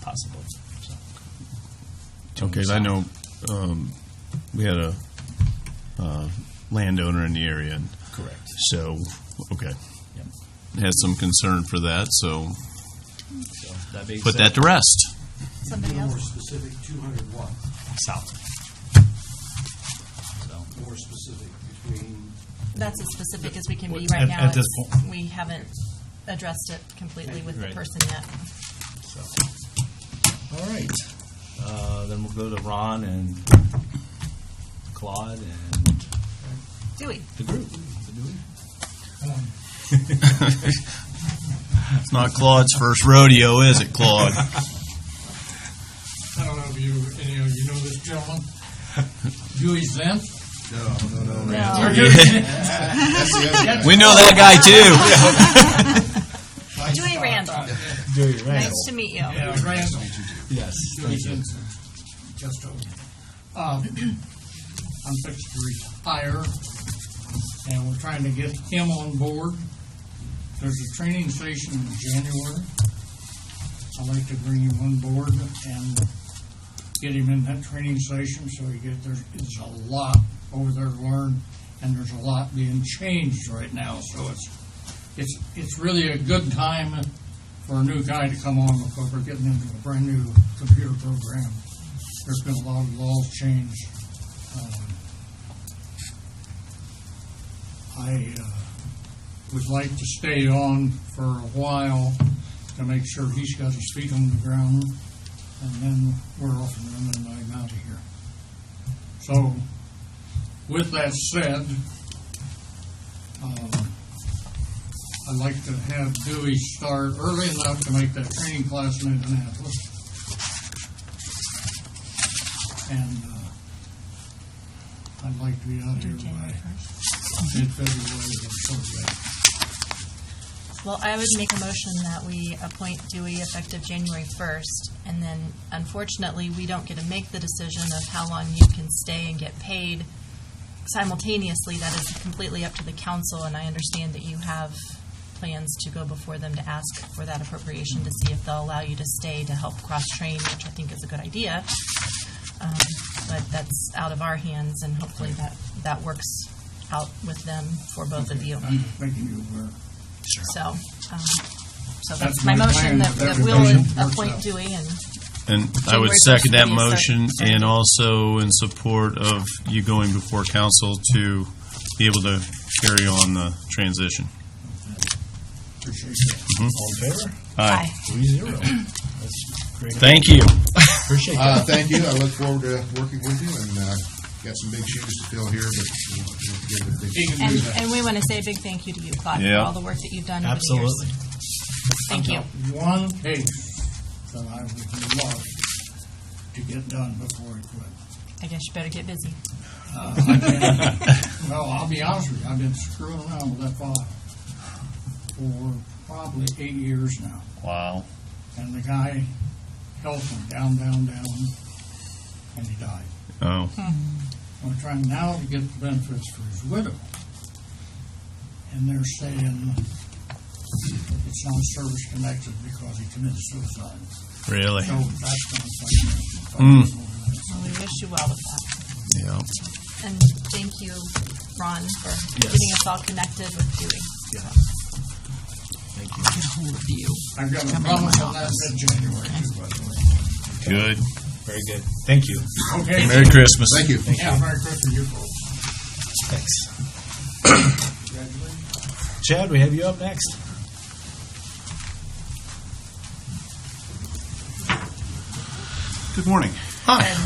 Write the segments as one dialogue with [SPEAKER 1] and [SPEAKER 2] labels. [SPEAKER 1] possible. So,
[SPEAKER 2] Okay, I know, um, we had a, uh, landowner in the area, and
[SPEAKER 1] Correct.
[SPEAKER 2] so, okay.
[SPEAKER 1] Yep.
[SPEAKER 2] Has some concern for that, so
[SPEAKER 1] So that being
[SPEAKER 2] put
[SPEAKER 1] said,
[SPEAKER 2] that to rest.
[SPEAKER 3] Somebody
[SPEAKER 4] More
[SPEAKER 3] else?
[SPEAKER 4] specific, 200 what?
[SPEAKER 1] south. So
[SPEAKER 4] More specific, between,
[SPEAKER 3] That's as specific as we can be
[SPEAKER 1] What-
[SPEAKER 3] right
[SPEAKER 1] at-
[SPEAKER 3] now.
[SPEAKER 1] at this
[SPEAKER 3] It's-
[SPEAKER 1] point.
[SPEAKER 3] We haven't addressed it completely with the
[SPEAKER 1] Right.
[SPEAKER 3] person yet.
[SPEAKER 1] So, all right. Uh, then we'll go to Ron and Claude and
[SPEAKER 3] Do we?
[SPEAKER 1] the group.
[SPEAKER 2] It's not Claude's first rodeo, is it, Claude?
[SPEAKER 5] I don't know if you, any of you know this gentleman, Dewey Zent.
[SPEAKER 3] No.
[SPEAKER 2] We know that guy too.
[SPEAKER 3] Dewey Randall. Nice to meet you.
[SPEAKER 5] Yeah, Randall.
[SPEAKER 1] Yes.
[SPEAKER 5] Dewey Jensen. Just over. Um, I'm fixed to retire, and we're trying to get him on board. There's a training session in January. I'd like to bring him on board and get him in that training session so he get, there is a lot over there to learn, and there's a lot being changed right now, so it's, it's, it's really a good time for a new guy to come on because we're getting into a brand-new computer program. There's been a lot of laws changed. Um, I uh, would like to stay on for a while to make sure he's got his feet on the ground, and then we're off and running and I'm out of here. So, with that said, um, I'd like to have Dewey start early enough to make that training class in Indianapolis. And uh, I'd like to be out here by
[SPEAKER 3] January 1st.
[SPEAKER 5] mid-February or something.
[SPEAKER 3] Well, I would make a motion that we appoint Dewey effective January 1st, and then unfortunately, we don't get to make the decision of how long you can stay and get paid simultaneously. That is completely up to the council, and I understand that you have plans to go before them to ask for that appropriation to see if they'll allow you to stay to help cross-train, which I think is a good idea. Um, But that's out of our hands, and hopefully that, that works out with them for both of you.
[SPEAKER 5] I'm just making you aware.
[SPEAKER 3] So, um, so that's
[SPEAKER 5] That's
[SPEAKER 3] my
[SPEAKER 5] my
[SPEAKER 3] motion
[SPEAKER 5] plan,
[SPEAKER 3] that,
[SPEAKER 5] that
[SPEAKER 3] that we'll
[SPEAKER 5] motion works
[SPEAKER 3] appoint
[SPEAKER 5] out.
[SPEAKER 3] Dewey and,
[SPEAKER 2] And I would
[SPEAKER 3] January
[SPEAKER 2] second that
[SPEAKER 3] 1st,
[SPEAKER 2] motion
[SPEAKER 3] sorry.
[SPEAKER 2] and also in support of you going before council to be able to carry on the transition.
[SPEAKER 5] Appreciate that.
[SPEAKER 6] All in favor?
[SPEAKER 3] aye.
[SPEAKER 6] Three zero. That's great.
[SPEAKER 2] Thank you.
[SPEAKER 6] Appreciate that.
[SPEAKER 7] Uh, thank you. I look forward to working with you and, uh, got some big shoes to fill here, but we'll, we'll give it a big.
[SPEAKER 5] He can do
[SPEAKER 3] And,
[SPEAKER 5] that.
[SPEAKER 3] and we want to say a big thank you to you, Claude, for
[SPEAKER 2] Yeah.
[SPEAKER 3] all the work that you've done over the years.
[SPEAKER 6] Absolutely.
[SPEAKER 3] Thank you.
[SPEAKER 5] One case that I would love to get done before I quit.
[SPEAKER 3] I guess you better get busy.
[SPEAKER 5] Well, I'll be honest with you, I've been screwing around with that file for probably eight years now.
[SPEAKER 2] Wow.
[SPEAKER 5] And the guy held him down, down, down, and he died.
[SPEAKER 2] Oh,
[SPEAKER 5] We're trying now to get the benefits for his widow. And they're saying it's not service connected because he committed suicide.
[SPEAKER 2] really?
[SPEAKER 5] So that's going
[SPEAKER 7] Hmm.
[SPEAKER 5] to
[SPEAKER 3] Well, we wish you well with that.
[SPEAKER 2] Yeah.
[SPEAKER 3] And thank you, Ron, for getting us all connected with Dewey.
[SPEAKER 5] I've got a promise on that mid-January, too, by the way.
[SPEAKER 2] Good.
[SPEAKER 1] Very good. Thank you.
[SPEAKER 5] Okay?
[SPEAKER 2] Merry Christmas.
[SPEAKER 7] Thank you.
[SPEAKER 5] Yeah, Merry Christmas to you folks.
[SPEAKER 1] Thanks. Chad, we have you up next.
[SPEAKER 8] Good morning.
[SPEAKER 3] Good morning.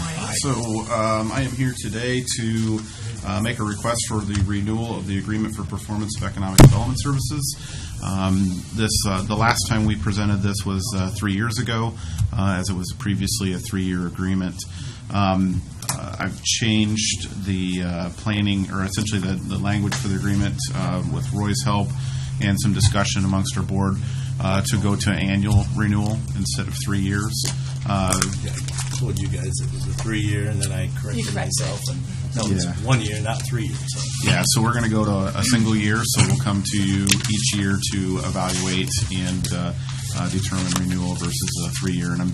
[SPEAKER 8] So um, I am here today to uh, make a request for the renewal of the Agreement for Performance of Economic Development Services. Um, This, uh, the last time we presented this was uh, three years ago, uh, as it was previously a three-year agreement. Um, uh, I've changed the uh, planning, or essentially the the language for the agreement uh, with Roy's help and some discussion amongst our board uh, to go to annual renewal instead of three years. Uh,
[SPEAKER 6] I told you guys it was a three-year, and then I
[SPEAKER 3] You
[SPEAKER 6] corrected
[SPEAKER 3] corrected
[SPEAKER 6] myself. and No, it's
[SPEAKER 8] Yeah.
[SPEAKER 6] one year, not three years. So
[SPEAKER 8] Yeah, so we're going to go to a single year, so we'll come to you each year to evaluate and uh, uh, determine renewal versus a three-year. And I'm doing